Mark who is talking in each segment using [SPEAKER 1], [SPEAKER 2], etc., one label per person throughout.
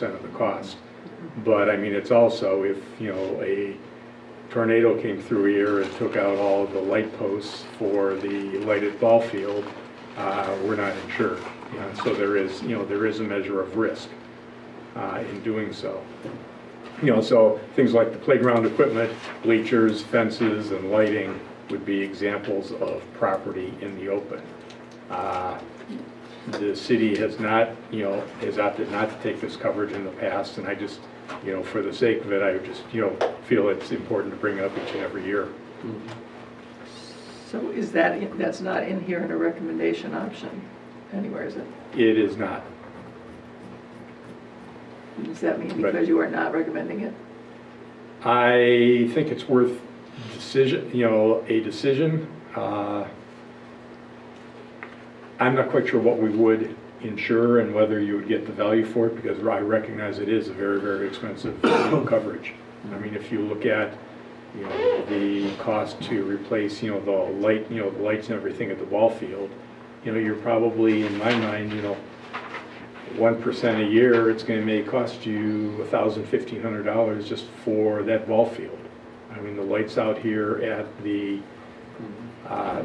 [SPEAKER 1] percent of the cost. But I mean, it's also if, you know, a tornado came through here and took out all of the light posts for the lighted ball field, uh, we're not insured. Uh, So there is, you know, there is a measure of risk uh, in doing so. You know, so things like the playground equipment, bleachers, fences, and lighting would be examples of property in the open. Uh, the city has not, you know, has opted not to take this coverage in the past, and I just, you know, for the sake of it, I would just, you know, feel it's important to bring up each and every year.
[SPEAKER 2] So is that, in- that's not in here in a recommendation option anywhere, is it?
[SPEAKER 1] It is not.
[SPEAKER 2] Does that mean
[SPEAKER 1] Right.
[SPEAKER 2] because you are not recommending it?
[SPEAKER 1] I think it's worth decision, you know, a decision. Uh, I'm not quite sure what we would insure and whether you would get the value for it, because I recognize it is a very, very expensive you know, coverage. I mean, if you look at, you know, the cost to replace, you know, the light, you know, the lights and everything at the ball field, you know, you're probably, in my mind, you know, one percent a year, it's gonna may cost you a thousand, fifteen hundred dollars just for that ball field. I mean, the lights out here at the, uh,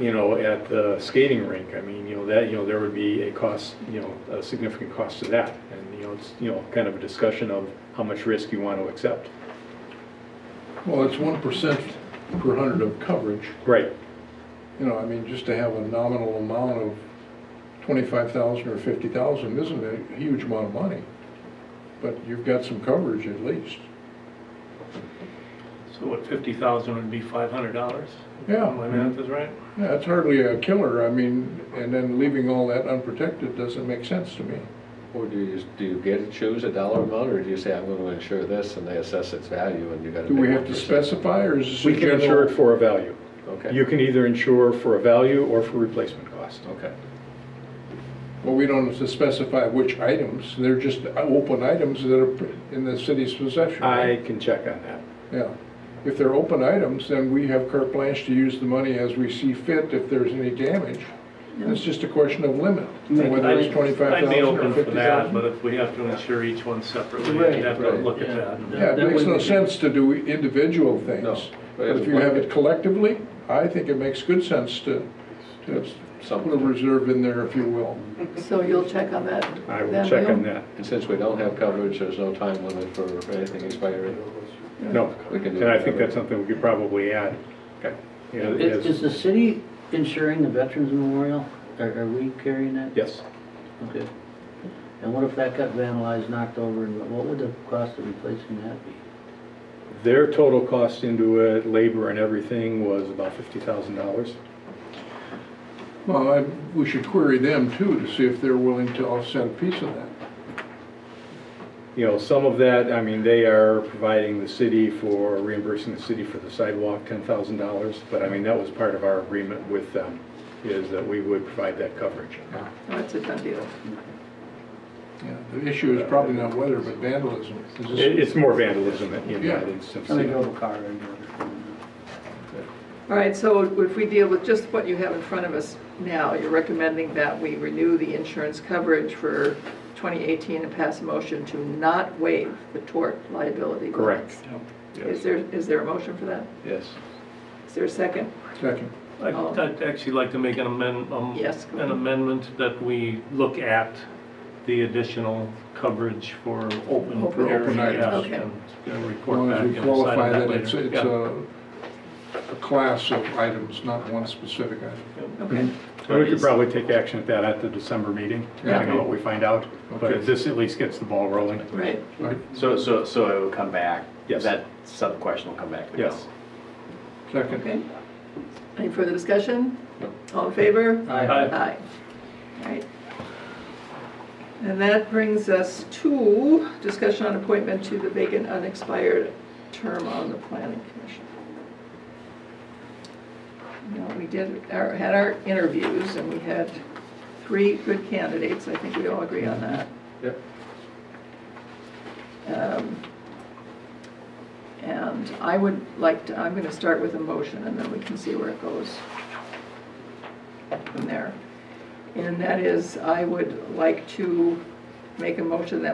[SPEAKER 1] you know, at the skating rink, I mean, you know, that, you know, there would be a cost, you know, a significant cost to that. And, you know, it's, you know, kind of a discussion of how much risk you want to accept.
[SPEAKER 3] Well, it's one percent per hundred of coverage,
[SPEAKER 1] Right,
[SPEAKER 3] you know, I mean, just to have a nominal amount of twenty-five thousand or fifty thousand isn't a huge amount of money. But you've got some coverage at least.
[SPEAKER 4] So what, fifty thousand would be five hundred dollars? My
[SPEAKER 3] Yeah,
[SPEAKER 4] math is right?
[SPEAKER 3] yeah, it's hardly a killer, I mean, and then leaving all that unprotected doesn't make sense to me.
[SPEAKER 5] Or do you, do you get to choose a dollar amount, or do you say, I'm gonna insure this, and they assess its value, and you gotta.
[SPEAKER 3] Do we
[SPEAKER 5] pay
[SPEAKER 3] have to
[SPEAKER 5] 1%?
[SPEAKER 3] specify, or is this a
[SPEAKER 1] we can
[SPEAKER 3] general?
[SPEAKER 1] insure it for a value. You
[SPEAKER 5] Okay,
[SPEAKER 1] can either insure for a value or for replacement cost.
[SPEAKER 5] okay.
[SPEAKER 3] Well, we don't have to specify which items, they're just open items that are in the city's possession. right?
[SPEAKER 1] I can check on that.
[SPEAKER 3] Yeah, if they're open items, then we have carte blanche to use the money as we see fit if there's any damage. And It's just a question of limit, and whether it's twenty-five
[SPEAKER 4] I'd be
[SPEAKER 3] thousand or
[SPEAKER 4] open for
[SPEAKER 3] fifty
[SPEAKER 4] that, but
[SPEAKER 3] thousand.
[SPEAKER 4] if we have to insure each one separately,
[SPEAKER 6] Right,
[SPEAKER 4] we'd have to
[SPEAKER 5] right,
[SPEAKER 4] look at
[SPEAKER 6] yeah.
[SPEAKER 4] that. and-
[SPEAKER 3] Yeah,
[SPEAKER 6] That
[SPEAKER 3] it makes
[SPEAKER 6] would
[SPEAKER 3] no
[SPEAKER 6] be-
[SPEAKER 3] sense to do individual
[SPEAKER 5] No,
[SPEAKER 3] things,
[SPEAKER 5] but
[SPEAKER 3] but
[SPEAKER 5] it's
[SPEAKER 3] if you have
[SPEAKER 5] bucket.
[SPEAKER 3] it collectively, I think it makes good sense to, to put a
[SPEAKER 5] Something.
[SPEAKER 3] reserve in there, if you will.
[SPEAKER 2] So you'll check on that?
[SPEAKER 1] I will
[SPEAKER 2] then,
[SPEAKER 1] check on
[SPEAKER 2] Will?
[SPEAKER 1] that.
[SPEAKER 5] And since we don't have coverage, there's no time limit for anything expiring.
[SPEAKER 1] No,
[SPEAKER 5] We can do
[SPEAKER 1] and I
[SPEAKER 5] whatever.
[SPEAKER 1] think that's something we could probably add. You know,
[SPEAKER 6] Is is
[SPEAKER 1] as-
[SPEAKER 6] the city insuring the Veterans Memorial? Are are we carrying that?
[SPEAKER 1] Yes,
[SPEAKER 6] Okay. And what if that got vandalized, knocked over, and what would the cost of replacing that be?
[SPEAKER 1] their total cost into it, labor and everything, was about fifty thousand dollars.
[SPEAKER 3] Well, I, we should query them too, to see if they're willing to offset a piece of that.
[SPEAKER 1] You know, some of that, I mean, they are providing the city for, reimbursing the city for the sidewalk, ten thousand dollars. But I mean, that was part of our agreement with them, is that we would provide that coverage.
[SPEAKER 2] No, it's Oh, a done deal.
[SPEAKER 3] Yeah, The issue is probably not weather, but vandalism. Is this-
[SPEAKER 1] It- It's more vandalism in
[SPEAKER 3] Yeah.
[SPEAKER 1] that instance.
[SPEAKER 6] I mean,
[SPEAKER 1] yeah.
[SPEAKER 6] go to car and...
[SPEAKER 2] All right, so if we deal with just what you have in front of us now, you're recommending that we renew the insurance coverage for 2018 and pass a motion to not waive the tort liability.
[SPEAKER 1] Correct.
[SPEAKER 2] Is there, is there a motion for that?
[SPEAKER 5] Yes.
[SPEAKER 2] Is there a second?
[SPEAKER 3] Second.
[SPEAKER 4] I'd I'd actually like to make an amend, um,
[SPEAKER 2] Yes, go
[SPEAKER 4] an
[SPEAKER 2] ahead.
[SPEAKER 4] amendment that we look at the additional coverage for open
[SPEAKER 2] Open
[SPEAKER 4] areas.
[SPEAKER 3] items.
[SPEAKER 2] Okay.
[SPEAKER 4] and- And
[SPEAKER 3] As long
[SPEAKER 4] report back
[SPEAKER 3] as
[SPEAKER 4] and
[SPEAKER 3] we
[SPEAKER 4] decide
[SPEAKER 3] qualify
[SPEAKER 4] on
[SPEAKER 3] that
[SPEAKER 4] that
[SPEAKER 3] it's, uh,
[SPEAKER 4] later.
[SPEAKER 3] it's
[SPEAKER 4] Yeah.
[SPEAKER 3] a, a class of items, not one specific item.
[SPEAKER 2] Okay.
[SPEAKER 1] And we could probably take action at that at the December meeting, depending on what we find out.
[SPEAKER 3] Okay.
[SPEAKER 1] But this at least gets the ball rolling.
[SPEAKER 2] Right.
[SPEAKER 3] Right,
[SPEAKER 7] So, so, so it will come back?
[SPEAKER 1] Yes.
[SPEAKER 7] That sub-question will come back to
[SPEAKER 1] Yes.
[SPEAKER 7] us?
[SPEAKER 3] second.
[SPEAKER 2] Okay. Any further discussion?
[SPEAKER 5] No.
[SPEAKER 2] All in favor?
[SPEAKER 4] Aye.
[SPEAKER 2] Aye. All right. And that brings us to discussion on appointment to the vacant unexpired term on the planning commission. Now, we did, our- had our interviews and we had three good candidates. I think we all agree on that.
[SPEAKER 5] Yep.
[SPEAKER 2] Um, And I would like to, I'm going to start with a motion, and then we can see where it goes from there. And that is, I would like to make a motion that